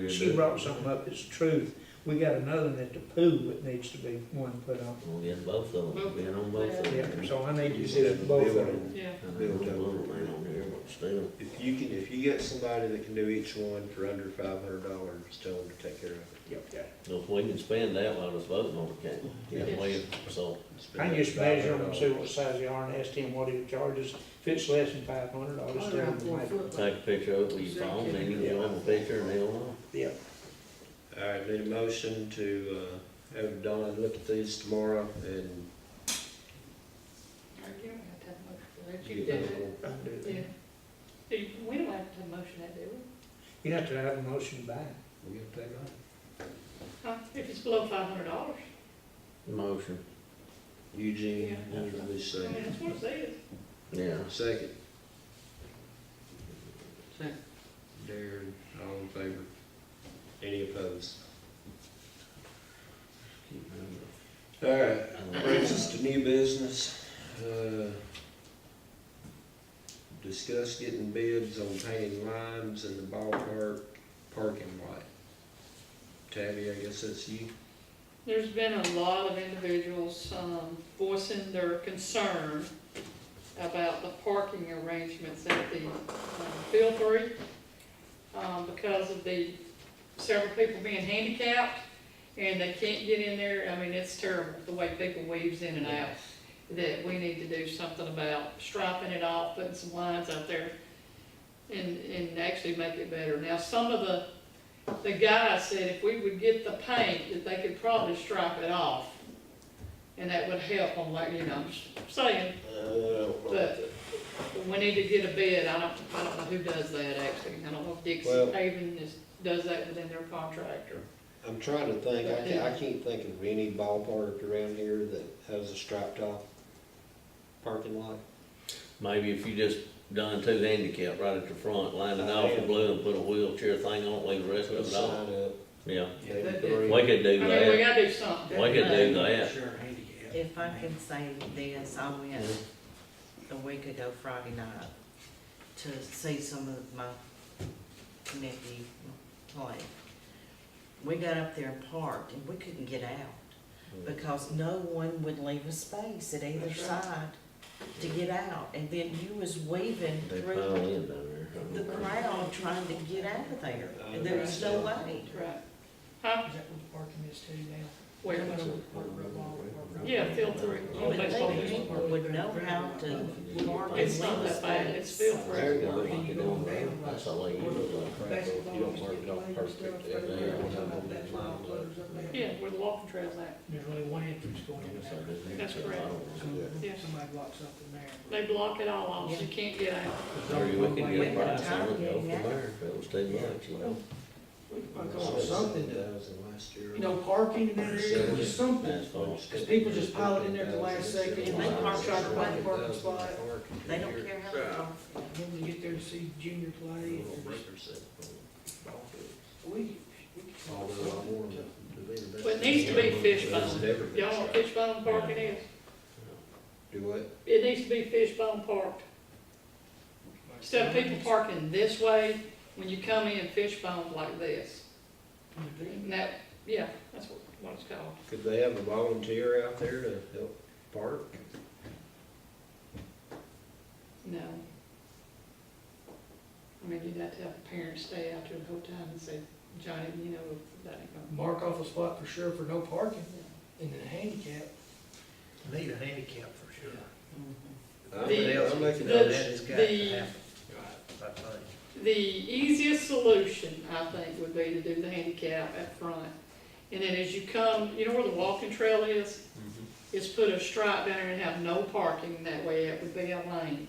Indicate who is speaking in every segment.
Speaker 1: did
Speaker 2: She
Speaker 1: that.
Speaker 2: brought something up, it's truth. We got another one at the pool that needs to be one put on.
Speaker 3: Well, yes, both of them, been on both of
Speaker 2: Yeah,
Speaker 3: them.
Speaker 2: so I need
Speaker 4: You
Speaker 2: to,
Speaker 4: said it's both of them.
Speaker 5: Yeah,
Speaker 3: I know, it's a little thing on here, but still,
Speaker 4: If you can, if you get somebody that can do each one for under five hundred dollars, just tell them to take care of it.
Speaker 3: if we can spend that while it's voting on it, can't we?
Speaker 5: Yeah.
Speaker 3: Yeah, we, so,
Speaker 4: Spend
Speaker 2: I
Speaker 4: that
Speaker 2: just measure them and see
Speaker 4: $500.
Speaker 2: what size they are and ask him what he charges. If it's less than five hundred, I'll just
Speaker 5: right
Speaker 2: do
Speaker 5: around
Speaker 2: it.
Speaker 5: four foot.
Speaker 3: take a picture of it with your phone, then you can show them a picture and they'll know.
Speaker 2: Yeah,
Speaker 4: All right, need a motion to, uh, have Donna look at these tomorrow and
Speaker 5: I give it that much for that. You
Speaker 4: get
Speaker 5: did it.
Speaker 4: them.
Speaker 2: I'll do
Speaker 5: Yeah.
Speaker 2: that.
Speaker 5: Do you- We don't have to motion that, do we?
Speaker 2: You have to have a motion back.
Speaker 4: We get that right.
Speaker 5: Huh? If it's below five hundred dollars,
Speaker 3: Motion,
Speaker 4: Eugene,
Speaker 3: Yeah.
Speaker 4: what did we
Speaker 5: I mean,
Speaker 4: say?
Speaker 5: that's what it says.
Speaker 3: yeah.
Speaker 4: Second,
Speaker 5: Second.
Speaker 4: Darren, all in favor? Any opposed? All right, brings us to new business. Uh, Discuss getting bids on painting lines in the ballpark parking lot. Tabby, I guess that's you.
Speaker 5: There's been a lot of individuals, um, voicing their concern about the parking arrangements at the, um, Field Three, um, because of the several people being handicapped, and they can't get in there, I mean, it's terrible, the way people weaves in and out, that we need to do something about striping it off, putting some lines out there, and, and actually make it better. Now, some of the the guy said if we would get the paint, that they could probably stripe it off. And that would help on like, you know, I'm just saying,
Speaker 4: Uh,
Speaker 5: but we need to get a bid, I don't, I don't know who does that actually. I don't know if Dixie
Speaker 4: Well-
Speaker 5: Paving is, does that within their contract or.
Speaker 4: I'm trying to think, I can't, I can't think of any ballpark around here that has a striped off parking lot.
Speaker 3: Maybe if you just done two handicap right at the front, line it off in blue and put a wheelchair thing on, leave the rest of it off.
Speaker 4: Sign up.
Speaker 3: Yeah,
Speaker 4: they
Speaker 5: That-
Speaker 4: agree.
Speaker 3: we could
Speaker 5: I
Speaker 3: do
Speaker 5: mean, we
Speaker 3: that,
Speaker 5: gotta do something.
Speaker 3: we could do that.
Speaker 6: Sure, handicap.
Speaker 7: If I can say this, I went a week ago Friday night to see some of my nephew play. We got up there and parked and we couldn't get out because no one would leave a space at either
Speaker 5: Mm. That's right.
Speaker 7: side to get out. And then you was weaving
Speaker 3: They pile
Speaker 7: through
Speaker 3: in down there.
Speaker 7: the crowd trying to get out of there. And there was no way.
Speaker 5: Right. Huh?
Speaker 6: Is that what the parking is too now?
Speaker 5: Where?
Speaker 6: That's what part of the ball- part of
Speaker 5: Yeah, field three.
Speaker 7: You would think people would know how to park and leave
Speaker 5: It's not
Speaker 7: a
Speaker 5: that bad,
Speaker 7: space.
Speaker 5: it's field three.
Speaker 4: There you go.
Speaker 3: Like it on there, that's all you do.
Speaker 6: the basketball
Speaker 4: You don't
Speaker 6: is
Speaker 4: mark it
Speaker 6: getting
Speaker 4: off
Speaker 6: laid and
Speaker 4: perfect
Speaker 6: stuff,
Speaker 4: there.
Speaker 6: but
Speaker 3: Yeah.
Speaker 6: I'm talking about that line closed up there.
Speaker 5: Yeah, where the walking trail's at.
Speaker 6: There's only one entrance going in there.
Speaker 5: That's correct. Yeah.
Speaker 6: Somebody blocks up in there.
Speaker 5: They block it all off, so you can't get out.
Speaker 3: Or you could
Speaker 6: One way
Speaker 3: get
Speaker 6: in.
Speaker 3: by some of go from there, if it was too much, you know.
Speaker 6: We could probably call it something to,
Speaker 4: $7,000 last year.
Speaker 6: you know, parking in that area, or something.
Speaker 3: Asphalt.
Speaker 6: Because people just pile it in there at the last second,
Speaker 7: and they park
Speaker 6: right by the parking spot.
Speaker 7: They don't care how to park.
Speaker 6: Then we get there to see junior play. and there's- We, we could call it something to.
Speaker 5: Well, it needs to be fishbone. Y'all want fishbone park it is?
Speaker 4: Do what?
Speaker 5: It needs to be fishbone parked. Instead of people parking this way, when you come in, fishbone like this. And that, yeah, that's what, what it's called.
Speaker 4: Could they have a volunteer out there to help park?
Speaker 5: No. I mean, you'd have to have parents stay out there the whole time and say, Johnny, you know, that ain't gonna.
Speaker 6: Mark off a spot for sure for no parking, and then handicap.
Speaker 2: Need a handicap for sure.
Speaker 4: I'm
Speaker 5: The-
Speaker 4: I'm making
Speaker 5: the-
Speaker 4: that.
Speaker 2: has got
Speaker 5: the-
Speaker 2: to happen, I think.
Speaker 5: The easiest solution, I think, would be to do the handicap up front. And then as you come, you know where the walking trail is? Is put a stripe down there and have no parking, that way it would be a lane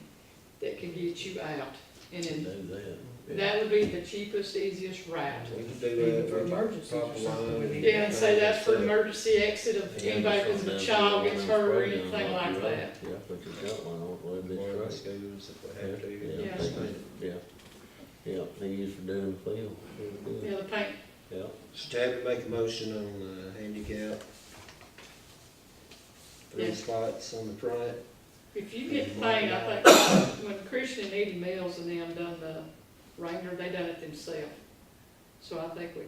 Speaker 5: that can get you out. And then,
Speaker 3: Do that.
Speaker 5: that would be the cheapest, easiest route.
Speaker 4: We could do that.
Speaker 6: Even for emergencies or
Speaker 4: Pop a
Speaker 6: something, we
Speaker 4: line.
Speaker 6: need-
Speaker 5: Yeah, and say that's for emergency exit of anybody, because a child gets hurt or anything like that.
Speaker 3: Yeah, put your shotgun on, it, let
Speaker 4: Boy,
Speaker 3: it
Speaker 4: this goes if we have to.
Speaker 3: be
Speaker 5: Yeah.
Speaker 3: straight. Yeah, yeah, yeah, they used to do in the field,
Speaker 5: You know, the paint,
Speaker 3: yeah.
Speaker 4: So Tabby make a motion on the handicap. Three
Speaker 5: Yes.
Speaker 4: spots on the front.
Speaker 5: if you get the paint, I think, when Christian and Eddie Mills and them done the Ranger, they done it themselves. So I think we